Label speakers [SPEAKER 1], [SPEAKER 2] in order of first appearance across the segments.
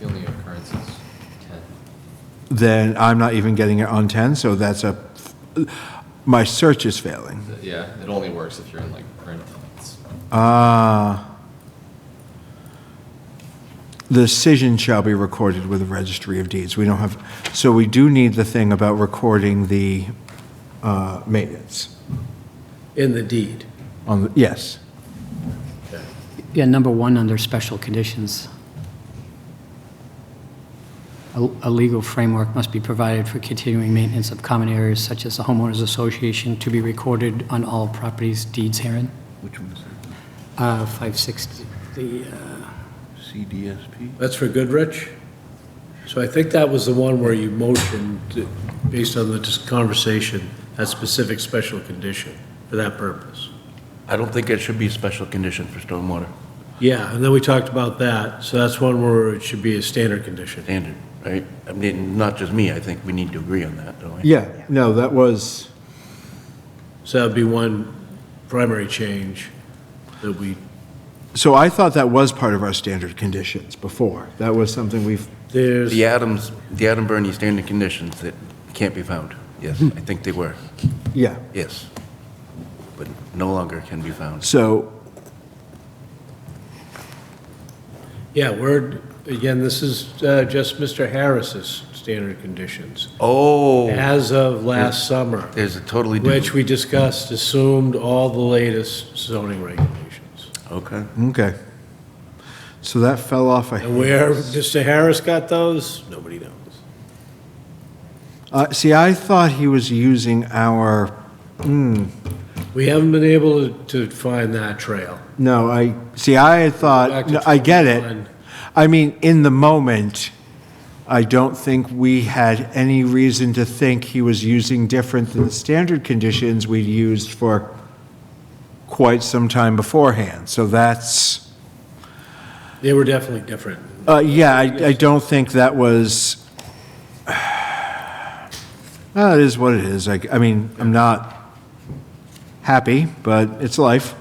[SPEAKER 1] That's his 10.
[SPEAKER 2] then I'm not even getting it on 10, so that's a, my search is failing.
[SPEAKER 1] Th- Yeah, it only works if you're in like print. It's-
[SPEAKER 2] Uh, The decision shall be recorded with the registry of deeds. We don't have, so we do need the thing about recording the uh, maintenance
[SPEAKER 3] in the deed.
[SPEAKER 2] on, the yes.
[SPEAKER 4] Yeah, number one under special conditions. A a legal framework must be provided for continuing maintenance of common areas such as the homeowners association to be recorded on all properties deeds herein.
[SPEAKER 5] Which one is that?
[SPEAKER 4] Uh, 560, the, uh,
[SPEAKER 5] CDSP?
[SPEAKER 3] That's for Goodrich? So I think that was the one where you motioned, to- based on the dis- conversation, that specific special condition for that purpose.
[SPEAKER 5] I don't think it should be a special condition for stormwater
[SPEAKER 3] Yeah, and then we talked about that, so that's one where it should be a standard condition.
[SPEAKER 5] standard, right? I mean, not just me, I think we need to agree on that, don't we?
[SPEAKER 2] Yeah, no, that was,
[SPEAKER 3] So that'd be one primary change that we,
[SPEAKER 2] so I thought that was part of our standard conditions before. That was something we've,
[SPEAKER 3] there's,
[SPEAKER 5] The Adams, the Adam Bernie standard conditions that can't be found. Yes, I think they were,
[SPEAKER 2] yeah.
[SPEAKER 5] yes. But no longer can be found.
[SPEAKER 2] So,
[SPEAKER 3] yeah, we're, again, this is uh, just Mr. Harris's standard conditions,
[SPEAKER 5] Oh,
[SPEAKER 3] as of last summer.
[SPEAKER 5] there's a totally
[SPEAKER 3] Which
[SPEAKER 5] different.
[SPEAKER 3] we discussed assumed all the latest zoning regulations.
[SPEAKER 5] Okay.
[SPEAKER 2] okay. So that fell off. a-
[SPEAKER 3] And where Mr. Harris got those, nobody knows.
[SPEAKER 2] Uh, See, I thought he was using our, hmm,
[SPEAKER 3] We haven't been able to to find that trail.
[SPEAKER 2] no, I, see, I had
[SPEAKER 3] Back
[SPEAKER 2] thought,
[SPEAKER 3] to
[SPEAKER 2] Uh, no, I get
[SPEAKER 3] 21.
[SPEAKER 2] it. I mean, in the moment, I don't think we had any reason to think he was using different than the standard conditions we'd used for quite some time beforehand. So that's,
[SPEAKER 3] They were definitely different.
[SPEAKER 2] uh, yeah, I, I don't think that was, Uh, it is what it is. I, I mean, I'm not happy, but it's life.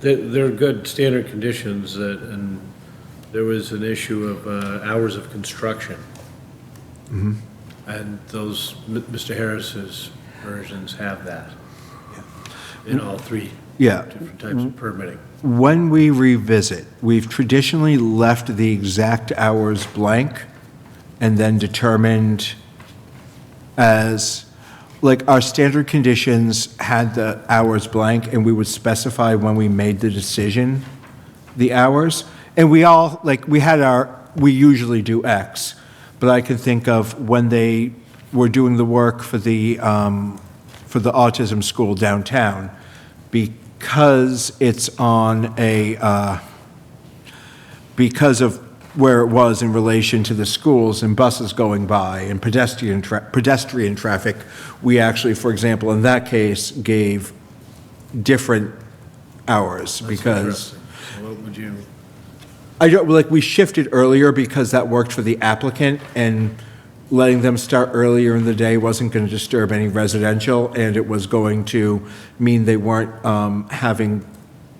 [SPEAKER 3] They- They're good standard conditions, that- and there was an issue of uh, hours of construction.
[SPEAKER 2] Mm-hmm.
[SPEAKER 3] And those, M- Mr. Harris's versions have that in all three
[SPEAKER 2] Yeah.
[SPEAKER 3] different types of permitting.
[SPEAKER 2] When we revisit, we've traditionally left the exact hours blank and then determined as, like, our standard conditions had the hours blank and we would specify when we made the decision, the hours. And we all, like, we had our, we usually do X, but I can think of when they were doing the work for the, um, for the autism school downtown, because it's on a, uh, because of where it was in relation to the schools and buses going by and pedestrian, tra- pedestrian traffic, we actually, for example, in that case, gave different hours because,
[SPEAKER 3] Interesting. What would you?
[SPEAKER 2] I don't, like, we shifted earlier because that worked for the applicant and letting them start earlier in the day wasn't going to disturb any residential and it was going to mean they weren't um, having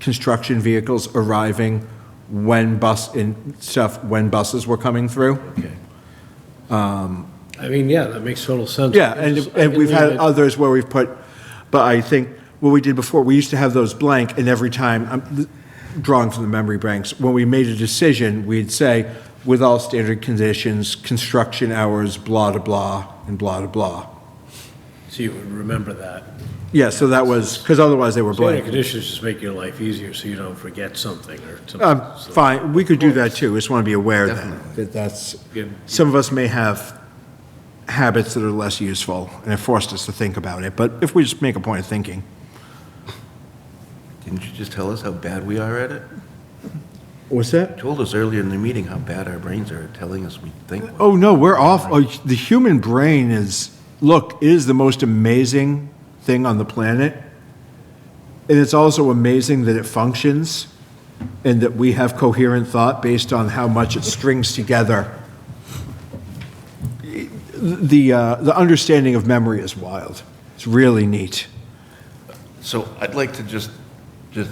[SPEAKER 2] construction vehicles arriving when bus, and stuff, when buses were coming through.
[SPEAKER 3] Okay. I mean, yeah, that makes total sense.
[SPEAKER 2] Yeah,
[SPEAKER 3] I
[SPEAKER 2] and,
[SPEAKER 3] just- I
[SPEAKER 2] and
[SPEAKER 3] can
[SPEAKER 2] we've had
[SPEAKER 3] leave it-
[SPEAKER 2] others where we've put, but I think what we did before, we used to have those blank, and every time, I'm drawing from the memory banks, when we made a decision, we'd say, with all standard conditions, construction hours, blah, blah, blah, and blah, blah, blah.
[SPEAKER 3] So you would remember that.
[SPEAKER 2] Yeah, so that was, because otherwise they were
[SPEAKER 3] Standard
[SPEAKER 2] blank.
[SPEAKER 3] conditions just make your life easier so you don't forget something or something.
[SPEAKER 2] Um, fine, we could do that too, just want to be aware of that, that that's,
[SPEAKER 3] Good.
[SPEAKER 2] some of us may have habits that are less useful, and it forced us to think about it, but if we just make a point of thinking.
[SPEAKER 5] Didn't you just tell us how bad we are at it?
[SPEAKER 2] What's that?
[SPEAKER 5] You told us earlier in the meeting how bad our brains are at telling us we think. we're-
[SPEAKER 2] Oh no, we're off. Oh, the human brain is look it is the most amazing thing on the planet, and it's also amazing that it functions, and that we have coherent thought based on how much it strings together. The uh, the understanding of memory is wild. It's really neat.
[SPEAKER 5] So I'd like to just, just